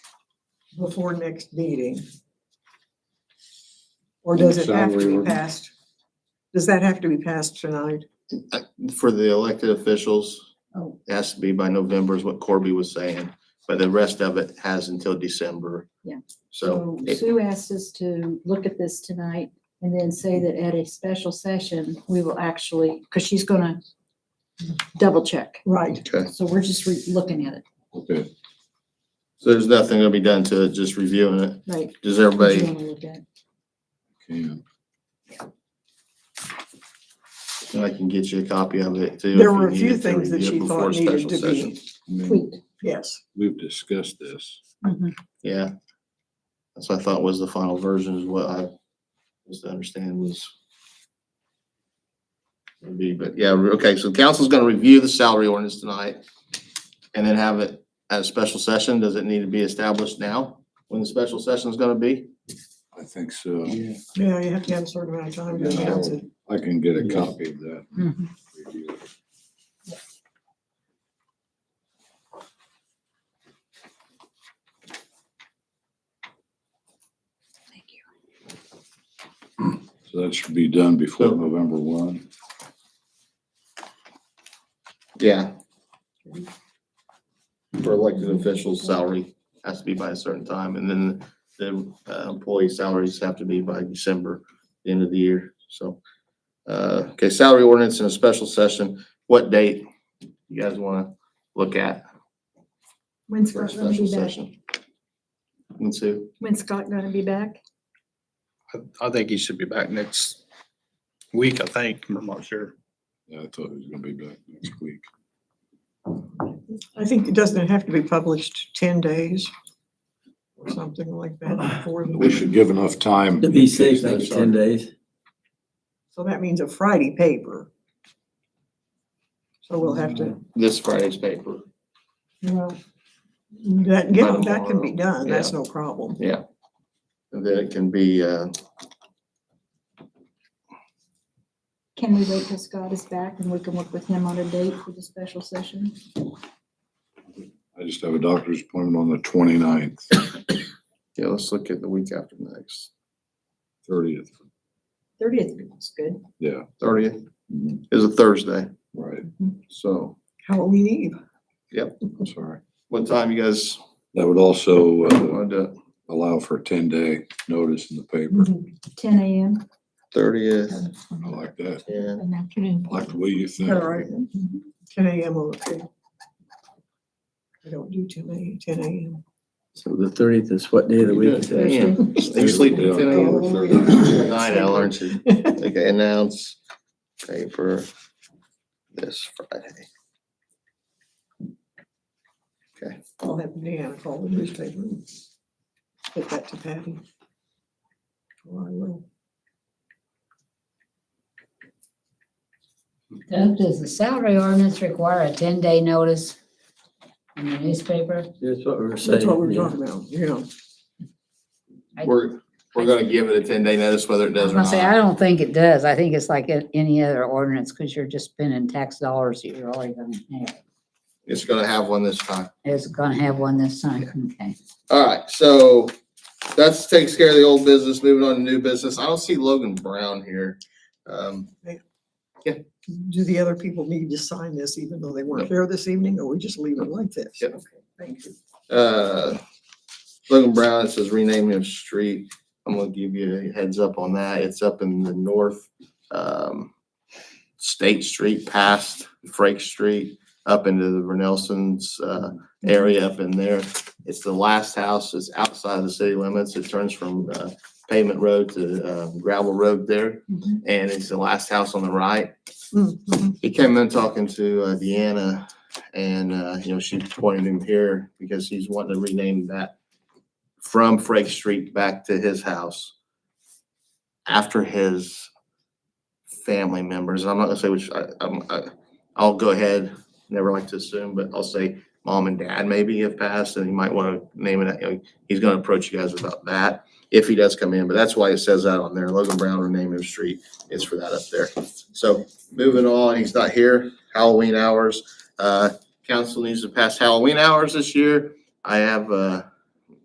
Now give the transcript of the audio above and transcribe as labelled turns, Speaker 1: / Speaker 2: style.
Speaker 1: before next meeting? Or does it have to be
Speaker 2: Salary.
Speaker 1: passed? Does that have to be passed tonight?
Speaker 3: For the elected officials,
Speaker 1: Oh.
Speaker 3: it has to be by November is what Corby was saying, but the rest of it has until December.
Speaker 4: Yeah.
Speaker 3: So
Speaker 4: So
Speaker 1: Oh.
Speaker 3: it-
Speaker 4: Um, Sue asked us to look at this tonight and then say that at a special session, we will actually, because she's gonna double check.
Speaker 1: Right,
Speaker 3: Okay.
Speaker 4: So we're just re- looking at it.
Speaker 2: Okay.
Speaker 3: so there's nothing gonna be done to it, just reviewing it.
Speaker 4: Right.
Speaker 3: Does
Speaker 4: What you
Speaker 3: everybody,
Speaker 4: wanna look at.
Speaker 3: Mm-hmm.
Speaker 2: Can.
Speaker 3: I can get you a copy of it too.
Speaker 1: there
Speaker 3: if you
Speaker 1: were a few
Speaker 3: needed to
Speaker 1: things that
Speaker 3: review it
Speaker 1: she
Speaker 3: before
Speaker 1: thought
Speaker 3: a
Speaker 1: needed
Speaker 3: special
Speaker 1: to
Speaker 3: session.
Speaker 1: be,
Speaker 2: I mean,
Speaker 4: Tweet.
Speaker 1: yes.
Speaker 2: we've discussed this.
Speaker 4: Mhm.
Speaker 3: Yeah. That's what I thought was the final version is what I was to understand was. would be, but yeah, re- okay, so council's gonna review the salary ordinance tonight and then have it at a special session. Does it need to be established now? When the special session is gonna be?
Speaker 2: I think so.
Speaker 1: Yeah, you have to have a certain amount of time to
Speaker 2: Yeah.
Speaker 1: announce it.
Speaker 2: I can get a copy of that.
Speaker 4: Mhm.
Speaker 2: review.
Speaker 4: Thank you.
Speaker 2: So that should be done before November one.
Speaker 3: Yeah. For elected officials, salary has to be by a certain time and then the uh, employee salaries have to be by December, the end of the year, so. Uh, okay, salary ordinance in a special session, what date you guys wanna look at
Speaker 4: When's
Speaker 3: for a
Speaker 4: Scott gonna
Speaker 3: special
Speaker 4: be back?
Speaker 3: session? And so,
Speaker 4: When's Scott gonna be back?
Speaker 5: I think he should be back next week, I think. I'm not sure.
Speaker 2: Yeah, I thought it was gonna be back next week.
Speaker 1: I think it doesn't have to be published ten days or something like that before the
Speaker 2: We should give enough time.
Speaker 6: To be
Speaker 2: in case
Speaker 6: safe, like
Speaker 2: that's our-
Speaker 6: ten days.
Speaker 1: So that means a Friday paper. So we'll have to,
Speaker 3: this Friday's paper,
Speaker 1: well, that, yeah,
Speaker 3: By
Speaker 1: that can be
Speaker 3: Mm-hmm. tomorrow,
Speaker 1: done, that's no problem.
Speaker 3: yeah. And then it can be, uh,
Speaker 4: Can we wait till Scott is back and we can work with him on a date for the special session?
Speaker 2: I just have a doctor's appointment on the 29th,
Speaker 3: yeah, let's look at the week after next,
Speaker 2: thirtieth.
Speaker 4: Thirtieth is good.
Speaker 2: Yeah,
Speaker 3: thirtieth
Speaker 2: mhm,
Speaker 3: is a Thursday,
Speaker 2: right,
Speaker 3: so.
Speaker 1: Halloween Eve.
Speaker 2: I'm sorry.
Speaker 3: What time you guys
Speaker 2: That would also uh,
Speaker 3: want to do it?
Speaker 2: allow for a ten-day notice in the paper.
Speaker 4: Ten AM.
Speaker 3: Thirtieth,
Speaker 2: I like that.
Speaker 3: yeah.
Speaker 4: An afternoon.
Speaker 2: I Like the way you think.
Speaker 1: All right, Mm-hmm. ten AM, okay. I don't do ten a.m. ten AM.
Speaker 6: So the thirtieth is what day of the week is that?
Speaker 3: Yeah. You sleep at ten
Speaker 2: October
Speaker 3: AM?
Speaker 2: 30th.
Speaker 3: Nine hour, aren't you? Okay, announce paper this Friday.
Speaker 1: I'll have Deanna call the newspaper. and Get that to Patty. Or I will.
Speaker 7: Doug, does the salary ordinance require a ten-day notice in the newspaper?
Speaker 6: That's what we were saying.
Speaker 1: That's what we we're
Speaker 6: yeah.
Speaker 1: talking about, yeah.
Speaker 7: I-
Speaker 3: We're, we're gonna give it a ten day notice whether it
Speaker 7: I
Speaker 3: does
Speaker 7: was
Speaker 3: or
Speaker 7: gonna say, I
Speaker 3: not.
Speaker 7: don't think it does. I think it's like a- any other ordinance, because you're just spending tax dollars that you're already gonna have.
Speaker 3: It's gonna have one this time.
Speaker 7: It's gonna have one this time, okay.
Speaker 3: All right, so that's takes care of the old business, moving on to new business. I don't see Logan Brown here. Um,
Speaker 1: Do the other people need to sign this even though they weren't there this evening, or we just leave it like this?
Speaker 3: Yep.
Speaker 1: Okay, Thank you.
Speaker 3: uh, Logan Brown, it says renaming of street. I'm gonna give you a heads up on that. It's up in the north, um, State Street past Frake Street, up into the Renelsons, uh, area up in there. It's the last house. It's outside of the city limits. It turns from, uh, pavement road to, uh, gravel road there.
Speaker 4: Mhm.
Speaker 3: And it's the last house on the right
Speaker 1: Mhm.
Speaker 3: he came in talking to uh, Deanna and, uh, you know, she pointed him here because he's wanting to rename that from Frank Street back to his house after his family members. I'm not gonna say which, I, I'm, I, I'll go ahead, never like to assume, but I'll say mom and dad maybe have passed and he might want to name it, you know, he's gonna approach you guys about that if he does come in, but that's why it says that on there. Logan Brown renaming of street is for that up there. So Moving on, he's not here, Halloween hours. Uh, council needs to pass Halloween hours this year. I have, uh,